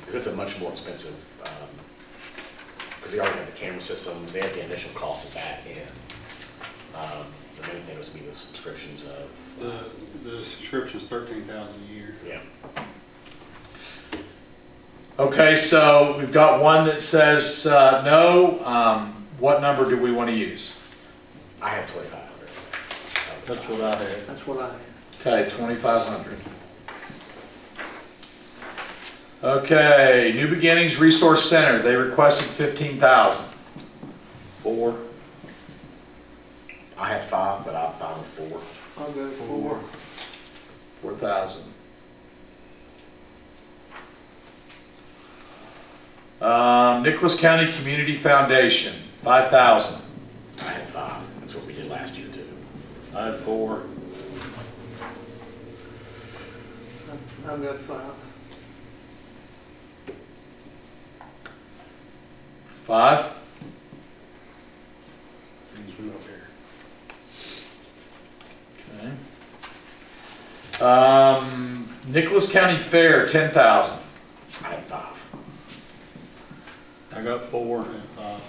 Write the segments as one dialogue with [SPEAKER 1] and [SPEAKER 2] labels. [SPEAKER 1] Because it's a much more expensive, because they already have the camera systems, they have the initial cost of that, and um, the main thing was to be the subscriptions of, uh,
[SPEAKER 2] The, the subscription's thirteen thousand a year.
[SPEAKER 1] yeah.
[SPEAKER 3] Okay, so we've got one that says uh, no. Um, What number do we want to use?
[SPEAKER 1] I have 2,500.
[SPEAKER 2] That's what I had.
[SPEAKER 4] That's what I,
[SPEAKER 3] Okay, 2,500. Okay, New Beginnings Resource Center, they requested 15,000.
[SPEAKER 1] Four. I had five, but I'm fine with four.
[SPEAKER 4] I'll go four.
[SPEAKER 3] 4,000. Um, Nicholas County Community Foundation, 5,000.
[SPEAKER 1] I had five, that's what we did last year too.
[SPEAKER 2] I had four.
[SPEAKER 4] I'll go five.
[SPEAKER 3] Five?
[SPEAKER 2] Things went up here.
[SPEAKER 3] Okay. Um, Nicholas County Fair, 10,000.
[SPEAKER 1] I had five.
[SPEAKER 2] I got four. and five.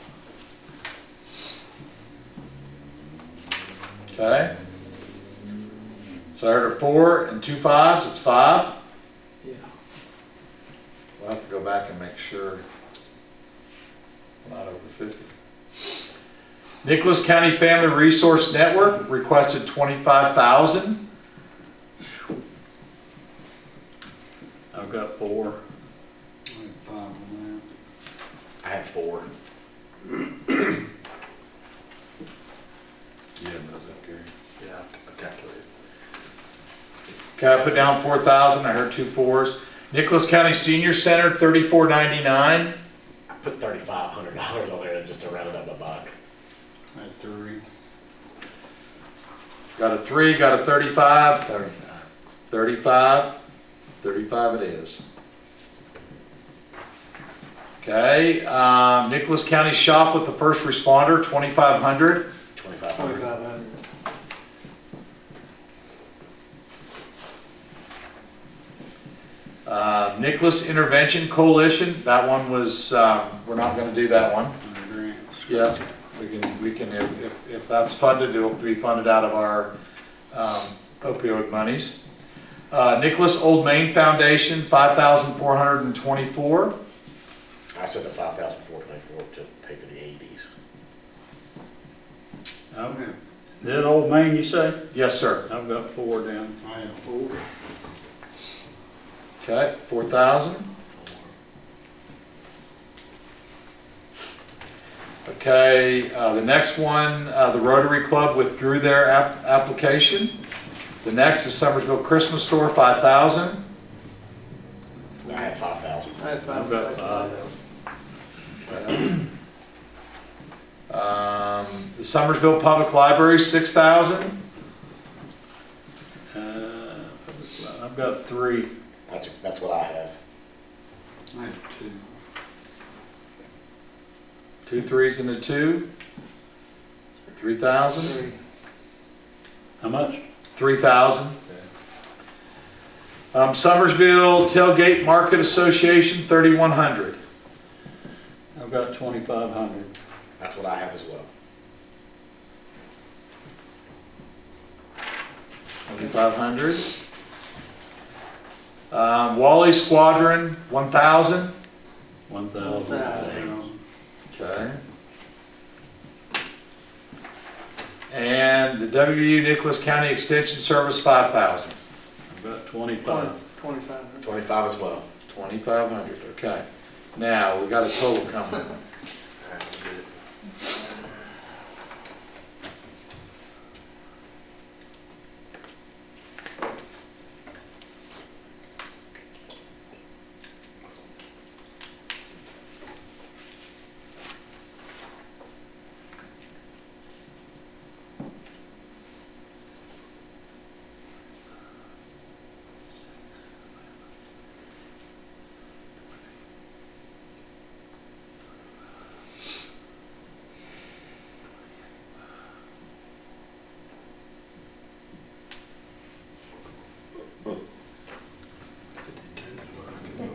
[SPEAKER 3] Okay. So I heard a four and two fives, it's five.
[SPEAKER 4] Yeah.
[SPEAKER 3] We'll have to go back and make sure. we're Not over fifty. Nicholas County Family Resource Network requested twenty-five thousand.
[SPEAKER 5] I've got four.
[SPEAKER 2] I had five on
[SPEAKER 1] I had four.
[SPEAKER 2] that. Yeah, that's up here.
[SPEAKER 1] Yeah, I calculated.
[SPEAKER 3] Okay, I put down four thousand, I heard two fours. Nicholas County Senior Center, thirty-four ninety-nine.
[SPEAKER 1] I put $3,500 on there just to round it up a buck.
[SPEAKER 2] I had three.
[SPEAKER 3] Got a three, got a thirty-five. Thirty-five, thirty-five it is. Okay, um, Nicholas County Shop with the First Responder, twenty-five hundred.
[SPEAKER 1] 2,500.
[SPEAKER 4] Twenty-five hundred.
[SPEAKER 3] Uh, Nicholas Intervention Coalition, that one was, um, we're not gonna do that one.
[SPEAKER 2] And a grant.
[SPEAKER 3] Yeah, we can, we can, if, if- if that's funded, it'll be funded out of our um, opioid monies. Uh, Nicholas Old Main Foundation, five thousand four hundred and twenty-four.
[SPEAKER 1] I said the 5,424 to pay for the E AEDs.
[SPEAKER 2] I
[SPEAKER 5] I've-
[SPEAKER 2] had,
[SPEAKER 5] That old man you say?
[SPEAKER 3] Yes, sir.
[SPEAKER 5] I've got four down.
[SPEAKER 2] I had four.
[SPEAKER 3] Okay, four thousand. Okay, uh, the next one, uh, the Rotary Club withdrew their app- application. The next is Summersville Christmas Store, five thousand.
[SPEAKER 1] I had 5,000.
[SPEAKER 4] I have five.
[SPEAKER 5] I've got five.
[SPEAKER 3] Um, the Summersville Public Library, six thousand.
[SPEAKER 5] Uh, I've got three.
[SPEAKER 1] That's, that's what I have.
[SPEAKER 2] I had two.
[SPEAKER 3] Two threes and a two. Three thousand.
[SPEAKER 4] Three.
[SPEAKER 5] How much?
[SPEAKER 3] Three thousand. Um, Summersville Tailgate Market Association, thirty-one hundred.
[SPEAKER 5] I've got twenty-five hundred.
[SPEAKER 1] That's what I have as well.
[SPEAKER 3] Twenty-five hundred. Um, Wally Squadron, one thousand.
[SPEAKER 5] One
[SPEAKER 4] One
[SPEAKER 5] thousand.
[SPEAKER 4] thousand.
[SPEAKER 2] Thousand.
[SPEAKER 3] Okay. And the WU Nicholas County Extension Service, five thousand.
[SPEAKER 5] I've got twenty-five.
[SPEAKER 4] Twenty-five hundred.
[SPEAKER 1] 25 as well.
[SPEAKER 3] Twenty-five hundred, okay. Now, we got a total coming.